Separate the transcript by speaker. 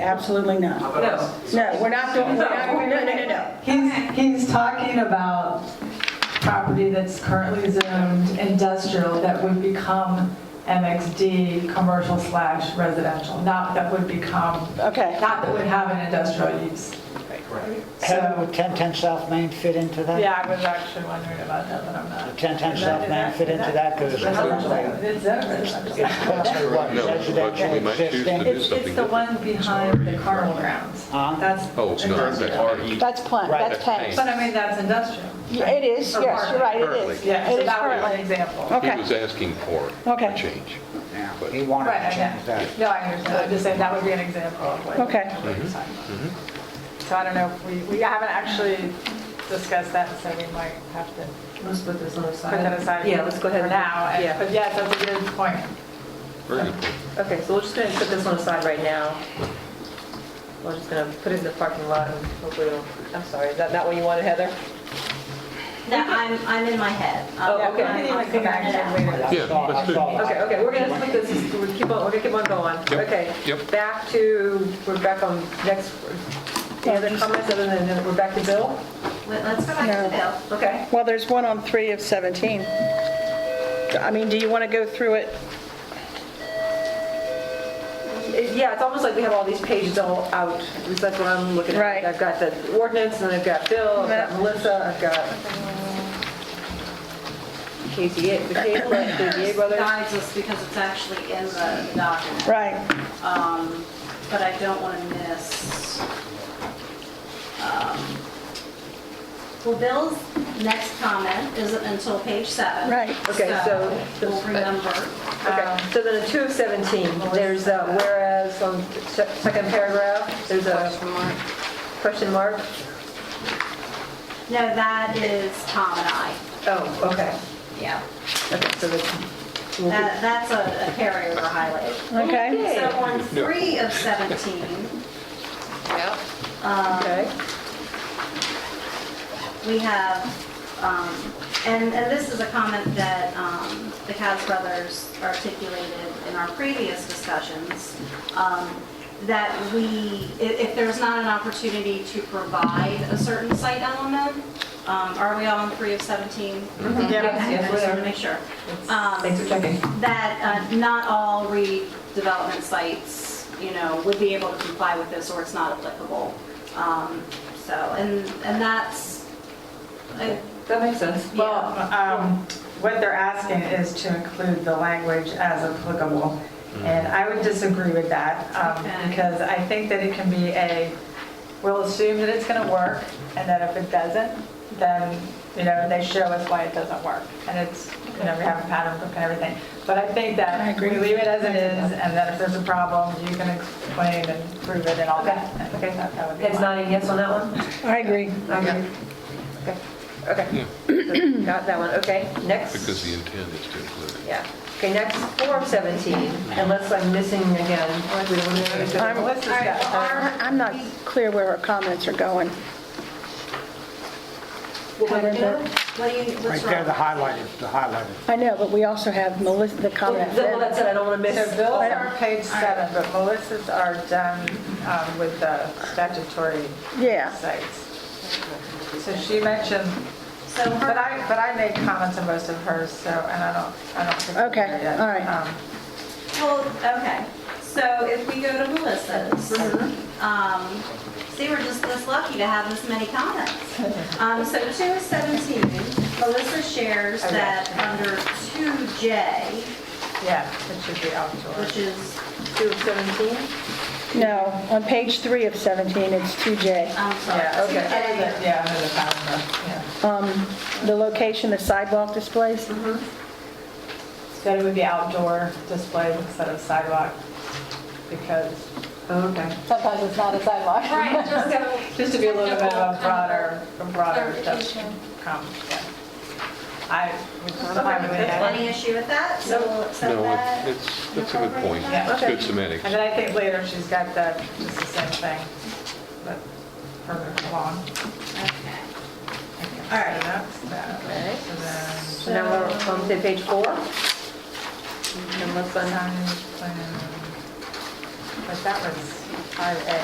Speaker 1: Absolutely not.
Speaker 2: No.
Speaker 1: No, we're not doing, we're not, no, no, no, no.
Speaker 3: He's, he's talking about property that's currently zoned industrial that would become MXD, commercial slash residential, not that would become,
Speaker 1: Okay.
Speaker 3: not that would have an industrial use.
Speaker 4: Heather, would 1010 South Main fit into that?
Speaker 3: Yeah, I was actually wondering about that, but I'm not.
Speaker 4: Would 1010 South Main fit into that? Because it's currently,
Speaker 3: It's zoned residential.
Speaker 4: it's currently what,
Speaker 5: No, but
Speaker 4: residential
Speaker 5: we might choose to
Speaker 4: existing?
Speaker 5: do-
Speaker 3: It's, it's
Speaker 5: something
Speaker 3: the
Speaker 5: different.
Speaker 3: one behind the carnival grounds.
Speaker 4: Huh?
Speaker 3: That's.
Speaker 5: Oh, it's not, that's
Speaker 3: industrial.
Speaker 5: RE.
Speaker 6: That's plant,
Speaker 4: Right.
Speaker 6: that's plants.
Speaker 3: But I mean, that's industrial.
Speaker 6: Yeah, It is,
Speaker 3: Or
Speaker 6: yes, you're
Speaker 3: part.
Speaker 6: right, it is.
Speaker 3: Yeah,
Speaker 6: It
Speaker 3: so
Speaker 6: is
Speaker 3: that was an
Speaker 6: currently.
Speaker 3: example.
Speaker 1: Okay.
Speaker 5: He was asking for
Speaker 1: Okay.
Speaker 5: a change.
Speaker 4: Yeah,
Speaker 5: But-
Speaker 4: He wanted
Speaker 3: Right,
Speaker 4: to
Speaker 3: I
Speaker 4: change that.
Speaker 3: get- no, I understand, I'm just saying that would be an example of what.
Speaker 1: Okay.
Speaker 3: what you're talking about. So I don't know, if we, we haven't actually discussed that, so we might have to
Speaker 2: Let's put this on the side.
Speaker 3: put that aside.
Speaker 2: Yeah, let's go ahead
Speaker 3: for
Speaker 2: and-
Speaker 3: Now, and-
Speaker 2: yeah.
Speaker 3: but yes, that's a good point.
Speaker 5: Very good point.
Speaker 2: Okay, so we're just gonna put this on the side right now. We're just gonna put it in the parking lot and hopefully it'll, I'm sorry, is that not what you wanted, Heather?
Speaker 7: That I'm, I'm in my head.
Speaker 2: Oh,
Speaker 7: I'm-
Speaker 2: okay.
Speaker 7: I'm-
Speaker 3: We can
Speaker 7: I'm
Speaker 3: even come back
Speaker 7: figuring it
Speaker 3: to
Speaker 7: out.
Speaker 3: it later.
Speaker 5: Yeah, let's do it.
Speaker 2: Okay, okay, we're gonna put this, we're keep on, we're gonna keep on going.
Speaker 5: Yep,
Speaker 2: Okay.
Speaker 5: yep.
Speaker 2: Back to, we're back on next, any other comments other than, that we're back to Bill?
Speaker 7: Wait, Let's go back to Bill.
Speaker 2: Okay.
Speaker 1: Well, there's one on 3 of 17. I mean, do you want to go through it?
Speaker 2: It- Yeah, it's almost like we have all these pages all out, at least that's what I'm looking at.
Speaker 1: Right.
Speaker 2: I've got the ordinance, and I've got Bill, I've got
Speaker 1: Yeah.
Speaker 2: Melissa, I've got Casey, the Casey, the DA brothers.
Speaker 7: Guides us because it's actually in the the document.
Speaker 1: Right.
Speaker 7: Um, But I don't want to miss. um, Well, Bill's next comment isn't until page seven.
Speaker 1: Right.
Speaker 2: Okay, so-
Speaker 7: We'll remember.
Speaker 2: Okay, so then in 2 of 17, there's a whereas on se- second paragraph, there's a question mark.
Speaker 7: No, that is Tom and I.
Speaker 2: Oh, okay,
Speaker 7: Yeah.
Speaker 2: okay, so that's,
Speaker 7: That, that's a a carryover highlight.
Speaker 1: Okay.
Speaker 7: So on three of 17,
Speaker 2: okay.
Speaker 7: we have, um, and, and this is a comment that um, the Katz brothers articulated in our previous discussions, um, that we, i- if there's not an opportunity to provide a certain site element, um, are we all on three of 17? Okay, I
Speaker 2: Yes,
Speaker 7: just
Speaker 2: we
Speaker 7: want to
Speaker 2: are.
Speaker 7: make sure. Um,
Speaker 2: Thanks for checking.
Speaker 7: that uh, not all redevelopment sites, you know, would be able to comply with this, or it's not applicable. Um, So, and, and that's, uh, I-
Speaker 2: That makes sense.
Speaker 7: yeah,
Speaker 3: Well, um, what they're asking is to include the language as applicable, and I would disagree with that, um,
Speaker 7: Okay.
Speaker 3: because I think that it can be a, we'll assume that it's going to work, and then if it doesn't, then, you know, they show us why it doesn't work, and it's, you know, we have a pattern book and everything. But I think
Speaker 1: I
Speaker 3: that
Speaker 1: agree
Speaker 3: we
Speaker 1: with
Speaker 3: leave it as it is, and then if there's a problem, you can explain and prove it and all that. Okay, that would be
Speaker 2: It's
Speaker 3: fine.
Speaker 2: not a yes on that one?
Speaker 1: I agree.
Speaker 2: Okay. Um, Okay, okay. So, Got that one, okay. Next.
Speaker 5: Because the intent is to include it.
Speaker 2: Yeah. Okay, next, Form 17, unless I'm missing again. We don't know if it's-
Speaker 1: I'm-
Speaker 3: Melissa's
Speaker 7: all right,
Speaker 3: got-
Speaker 7: well, our-
Speaker 1: I'm not clear where our comments are going.
Speaker 2: What was that?
Speaker 7: what do you,
Speaker 4: Right
Speaker 7: what's
Speaker 4: there, the
Speaker 7: wrong?
Speaker 4: highlighted, the highlighted.
Speaker 1: I know, but we also have Melissa, the
Speaker 2: Well,
Speaker 1: comment.
Speaker 2: that- well, that's it, I don't want to
Speaker 3: So
Speaker 2: miss.
Speaker 3: Bill's are page seven, but Melissa's are done um, with the statutory
Speaker 1: Yeah.
Speaker 3: sites. So she mentioned,
Speaker 7: So
Speaker 3: but
Speaker 7: her,
Speaker 3: I, but I made comments on most of hers, so, and I don't, I don't think. we're
Speaker 1: Okay,
Speaker 3: there yet.
Speaker 1: all right.
Speaker 3: Um,
Speaker 7: well, okay, so if we go to Melissa's,
Speaker 3: Mm-hmm.
Speaker 7: um, see, we're just this lucky to have this many comments. Um, So 2 is 17, Melissa shares
Speaker 3: Okay.
Speaker 7: that under 2J,
Speaker 3: Yeah, it should be outdoor.
Speaker 7: which is
Speaker 2: Two of 17?
Speaker 1: No, on page 3 of 17, it's 2J.
Speaker 7: I'm sorry.
Speaker 3: Yeah, okay.
Speaker 7: 2J.
Speaker 3: Other than- Yeah, under the calendar, yeah.
Speaker 1: The location, the sidewalk displays?
Speaker 3: That it would be outdoor display instead of sidewalk, because
Speaker 2: Okay.
Speaker 3: sometimes it's not a sidewalk.
Speaker 7: Oh, Right, just a-
Speaker 3: Just to be a little bit of a broader, a broader
Speaker 7: Clarification.
Speaker 3: comment, yeah. I would probably add.
Speaker 7: Any issue with that? So we'll accept
Speaker 5: No, it-
Speaker 7: that?
Speaker 5: it's, that's a good point.
Speaker 3: Yeah.
Speaker 5: It's good semantics.
Speaker 3: And then I think later she's got the, just the same thing, but further along.
Speaker 7: Okay.
Speaker 3: All right. Okay. So then,
Speaker 2: Now we're on to page four. Unless I'm,
Speaker 3: signage plan. but that was 5A.